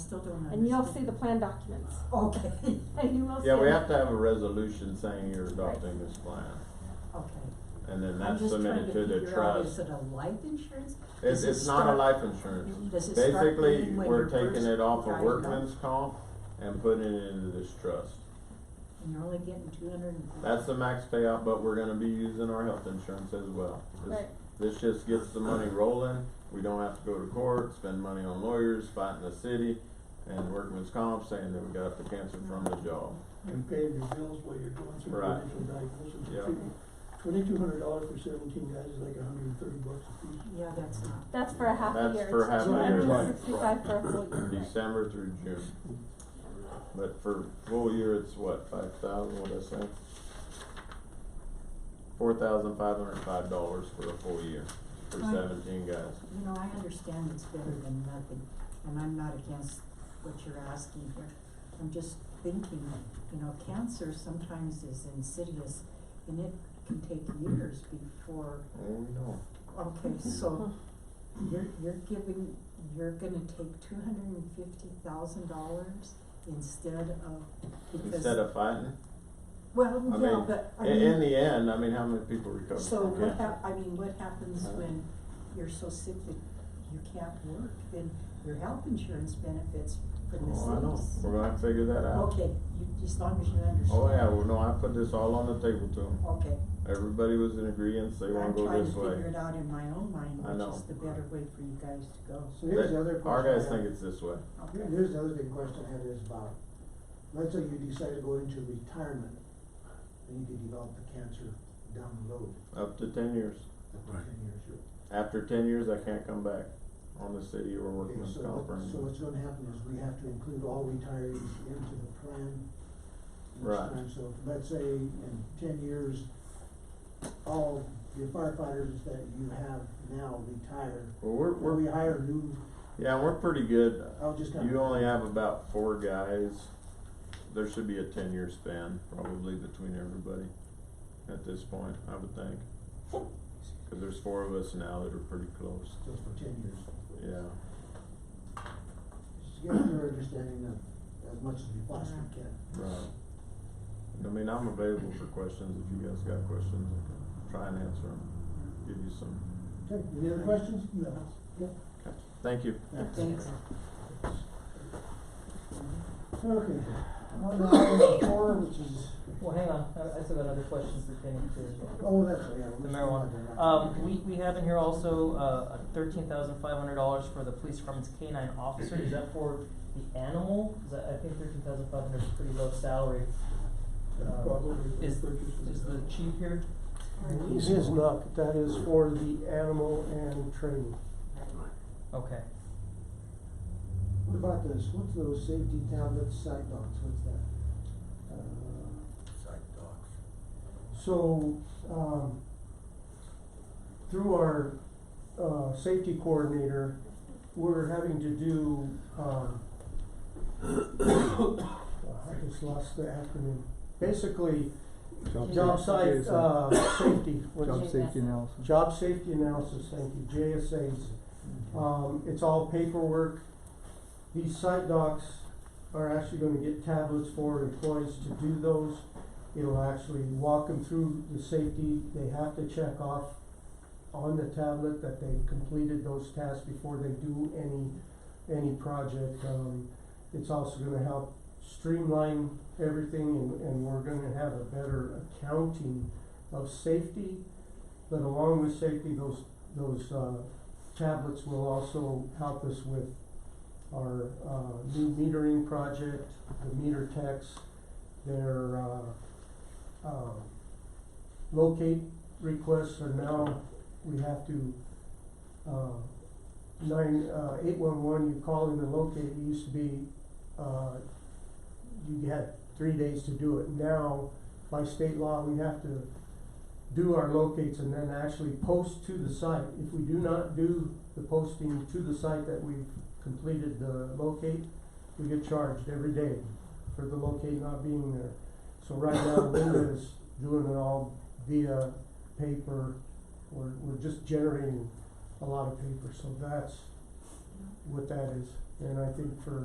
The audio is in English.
don't and you'll see understand. the plan documents. Okay, And you will see. Yeah, we it. have to have a resolution saying you're adopting this plan, okay. and then I'm that's just trying submitted to to the figure out, is trust. it a life insurance? It's, does it it's not a start- life insurance. Does it start Basically, bleeding when we're you're taking first it off riding of up? workman's comp and putting it into this trust. And you're only getting two hundred and. That's the max payout, but we're gonna be using our health insurance as well. This- Right. This just gets the money rolling, we don't have to go to court, spend money on lawyers, fighting the city, and workman's comp saying that we got the cancer from the job. and paying your bills while you're going through Right. initial diagnosis. Yeah. Twenty-two hundred dollars for seventeen guys is like a hundred and thirty bucks a piece. Yeah, that's not. That's for a half a That's year. for half a year. It's two hundred and sixty-five for a full year. December through June. But for full year, it's what, five thousand, what'd I say? Four thousand five hundred five dollars for a full year, for Right. seventeen guys. You know, I understand it's better than nothing, and I'm not against what you're asking here. I'm just thinking, you know, cancer sometimes is insidious, and it can take years before, Oh, no. okay, so you're, you're giving, you're gonna take two hundred and fifty thousand dollars instead of, because. Instead of fighting, Well, I yeah, mean, but, I in, mean. in the end, I mean, how many people recover So from what cancer? hap- I mean, what happens Uh. when you're so sick that you can't work, then your health insurance benefits from the cities? Oh, I know, we're gonna have to figure that out. Okay, you, as long as you understand. Oh, yeah, well, no, I put this all on the table to them, Okay. everybody was in agreement, they wanna go this I'm trying to figure way. it out in my own mind, I know. which is the better way for you guys to go. So here's They- the other Our question I guys have. think it's this way, Here- Okay. Here's the other big question I have is about, let's say you decide to go into retirement, and you could develop the cancer down the road, up to ten years. after Right. ten years. After ten years, I can't come back on the city or Okay, workman's so comp or what- So anything. what's gonna happen is we have to include all retirees into the plan each Right. time, so let's say in ten years, all your firefighters that you have now retire, Well, we're, or we we're, hire new, yeah, we're pretty good. I'll just kind of. You only have about four guys. There should be a ten-year span probably between everybody at this point, I would think. Cause there's four of us now that are pretty close, Just for ten years. yeah. Just get your understanding of, as much as we possibly Yeah. can. Right. I mean, I'm available for questions if you guys got questions, I can try and answer them, give you some. Okay, any other questions? No. Thank you. Thanks. Okay, on to item four, which is, Well, hang on, I, I still got other questions pertaining to oh, that's, yeah. the we should- marijuana. Um, we, we have in here also, uh, thirteen thousand five hundred dollars for the police department's canine officer, is that for the animal? Cause I, I think thirteen thousand five hundred is a pretty low salary. Um, Probably Is, purchasing is the that. chief here? It is not, that is for the animal and training. Okay, What about this, what's those safety tablets, side dogs, what's that? Uh, Psych dogs. So, um, through our, uh, safety coordinator, we're having to do, um, I just lost the acronym. Basically, job site, uh, safety, what's Job safety analysis. Job safety analysis, thank you, JSAs. Um, it's all paperwork. These site docs are actually gonna get tablets for employees to do those. It'll actually walk them through the safety, they have to check off on the tablet that they've completed those tasks before they do any, any project. Um, it's also gonna help streamline everything and, and we're gonna have a better accounting of safety. But along with safety, those, those, uh, tablets will also help us with our, uh, new metering project, the meter techs, their, uh, um, locate requests are now, we have to, uh, nine, uh, eight-one-one, you call in and locate, it used to be, uh, you had three days to do it. Now, by state law, we have to do our locates and then actually post to the site. If we do not do the posting to the site that we've completed the locate, we get charged every day for the locate not being there. So right now, Linda is doing it all via paper. We're, we're just generating a lot of paper, so that's what that is. And I think for